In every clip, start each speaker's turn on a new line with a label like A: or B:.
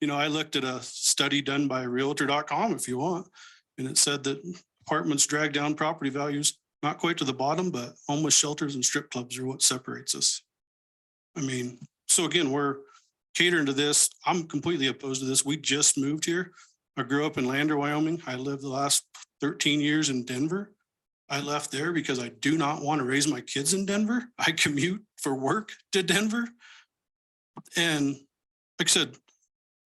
A: you know, I looked at a study done by Realtor.com if you want, and it said that apartments drag down property values, not quite to the bottom, but homeless shelters and strip clubs are what separates us. I mean, so again, we're catering to this. I'm completely opposed to this. We just moved here. I grew up in Lander, Wyoming. I lived the last thirteen years in Denver. I left there because I do not want to raise my kids in Denver. I commute for work to Denver. And like I said,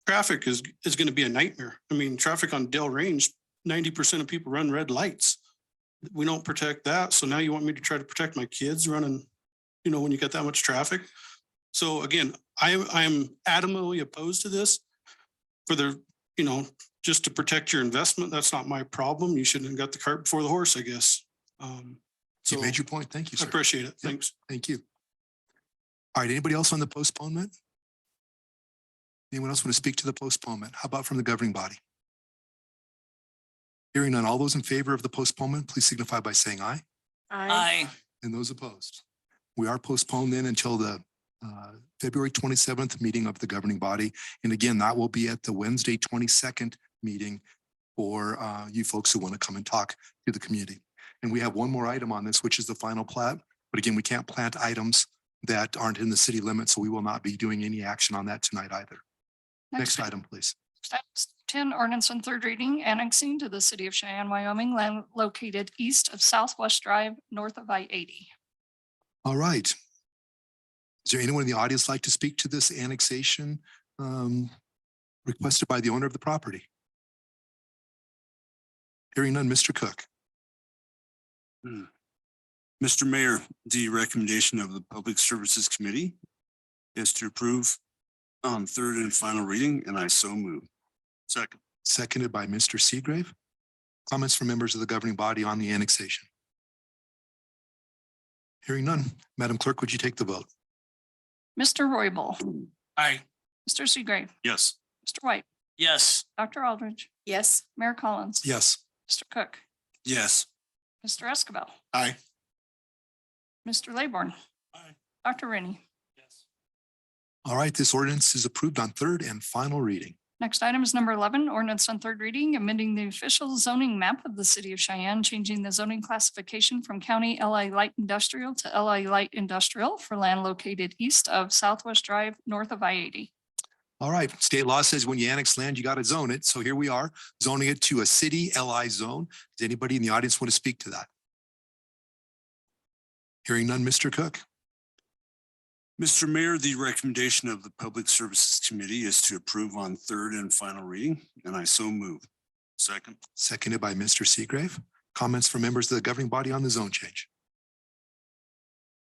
A: traffic is, is going to be a nightmare. I mean, traffic on Dell Range, ninety percent of people run red lights. We don't protect that. So now you want me to try to protect my kids running, you know, when you got that much traffic? So again, I, I am adamantly opposed to this for the, you know, just to protect your investment. That's not my problem. You shouldn't have got the cart before the horse, I guess. Um,
B: You
A: So I
B: made your point. Thank you, sir.
A: appreciate it. Thanks.
B: Thank you. All right, anybody else on the postponement? Anyone else want to speak to the postponement? How about from the governing body? Hearing none, all those in favor of the postponement, please signify by saying aye.
C: Aye.
B: And those opposed? We are postponed then until the uh, February 27th meeting of the governing body. And again, that will be at the Wednesday 22nd meeting for uh, you folks who want to come and talk to the community. And we have one more item on this, which is the final plat. But again, we can't plant items that aren't in the city limits, so we will not be doing any action on that tonight either. Next item, please.
D: Items Ten ordinance on third reading annexing to the city of Cheyenne, Wyoming, land located east of Southwest Drive, north of I eighty.
B: All right. Is there anyone in the audience like to speak to this annexation um, requested by the owner of the property? Hearing none, Mr. Cook.
E: Mr. Mayor, the recommendation of the Public Services Committee is to approve on third and final reading, and I so move. Second.
B: Seconded by Mr. Seagrave. Comments from members of the governing body on the annexation? Hearing none. Madam Clerk, would you take the vote?
D: Mr. Royball,
A: Aye.
D: Mr. Seagrave,
E: Yes.
D: Mr. White,
C: Yes.
D: Dr. Aldridge,
C: Yes.
D: Mayor Collins.
B: Yes.
D: Mr. Cook,
E: Yes.
D: Mr. Escabel.
E: Aye.
D: Mr. Laborn.
A: Aye.
D: Dr. Rennie.
B: All right, this ordinance is approved on third and final reading.
D: Next item is number eleven, ordinance on third reading, amending the official zoning map of the city of Cheyenne, changing the zoning classification from county LA light industrial to LA light industrial for land located east of Southwest Drive, north of I eighty.
B: All right, state law says when you annex land, you got to zone it. So here we are zoning it to a city LI zone. Does anybody in the audience want to speak to that? Hearing none, Mr. Cook.
E: Mr. Mayor, the recommendation of the Public Services Committee is to approve on third and final reading, and I so move. Second.
B: Seconded by Mr. Seagrave. Comments from members of the governing body on the zone change?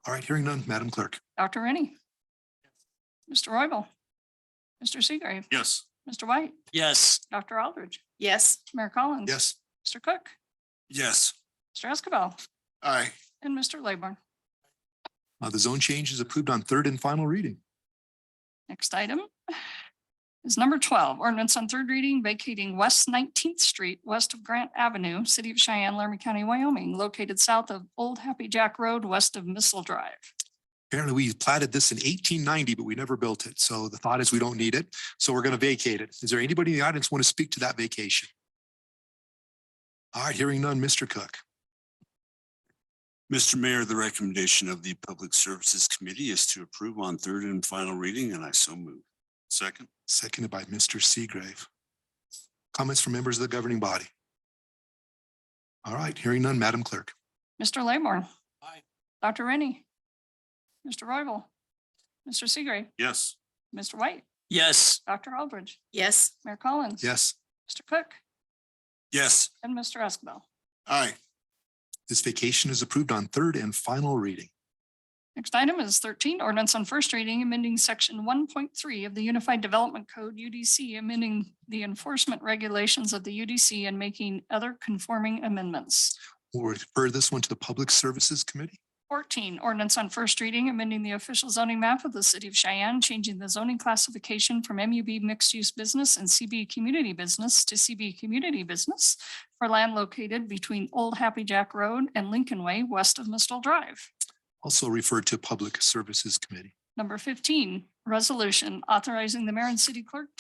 B: All right, hearing none, Madam Clerk.
D: Dr. Rennie. Mr. Royball. Mr. Seagrave.
E: Yes.
D: Mr. White.
C: Yes.
D: Dr. Aldridge.
C: Yes.
D: Mayor Collins.
B: Yes.
D: Mr. Cook.
E: Yes.
D: Mr. Escabel.
E: Aye.
D: And Mr. Laborn.
B: Uh, the zone change is approved on third and final reading.
D: Next item is number twelve, ordinance on third reading vacating West Nineteenth Street, west of Grant Avenue, City of Cheyenne, Laramie County, Wyoming, located south of Old Happy Jack Road, west of Missile Drive.
B: Apparently, we platted this in eighteen ninety, but we never built it. So the thought is we don't need it. So we're going to vacate it. Is there anybody in the audience want to speak to that vacation? All right, hearing none, Mr. Cook.
E: Mr. Mayor, the recommendation of the Public Services Committee is to approve on third and final reading, and I so move. Second.
B: Seconded by Mr. Seagrave. Comments from members of the governing body? All right, hearing none, Madam Clerk.
D: Mr. Laborn.
A: Aye.
D: Dr. Rennie. Mr. Royball. Mr. Seagrave.
E: Yes.
D: Mr. White.
C: Yes.
D: Dr. Aldridge.
C: Yes.
D: Mayor Collins.
B: Yes,
D: Mr. Cook
E: Yes.
D: and Mr. Escabel.
E: Aye.
B: this vacation is approved on third and final reading.
D: Next item is thirteen ordinance on first reading, amending section one point three of the Unified Development Code UDC, amending the enforcement regulations of the UDC and making other conforming amendments.
B: We'll refer this one to the Public Services Committee.
D: Fourteen ordinance on first reading, amending the official zoning map of the city of Cheyenne, changing the zoning classification from MUB mixed-use business and CB community business to CB community business for land located between Old Happy Jack Road and Lincoln Way, west of Mistle Drive.
B: also referred to Public Services Committee.
D: Number fifteen, resolution authorizing the mayor and city clerk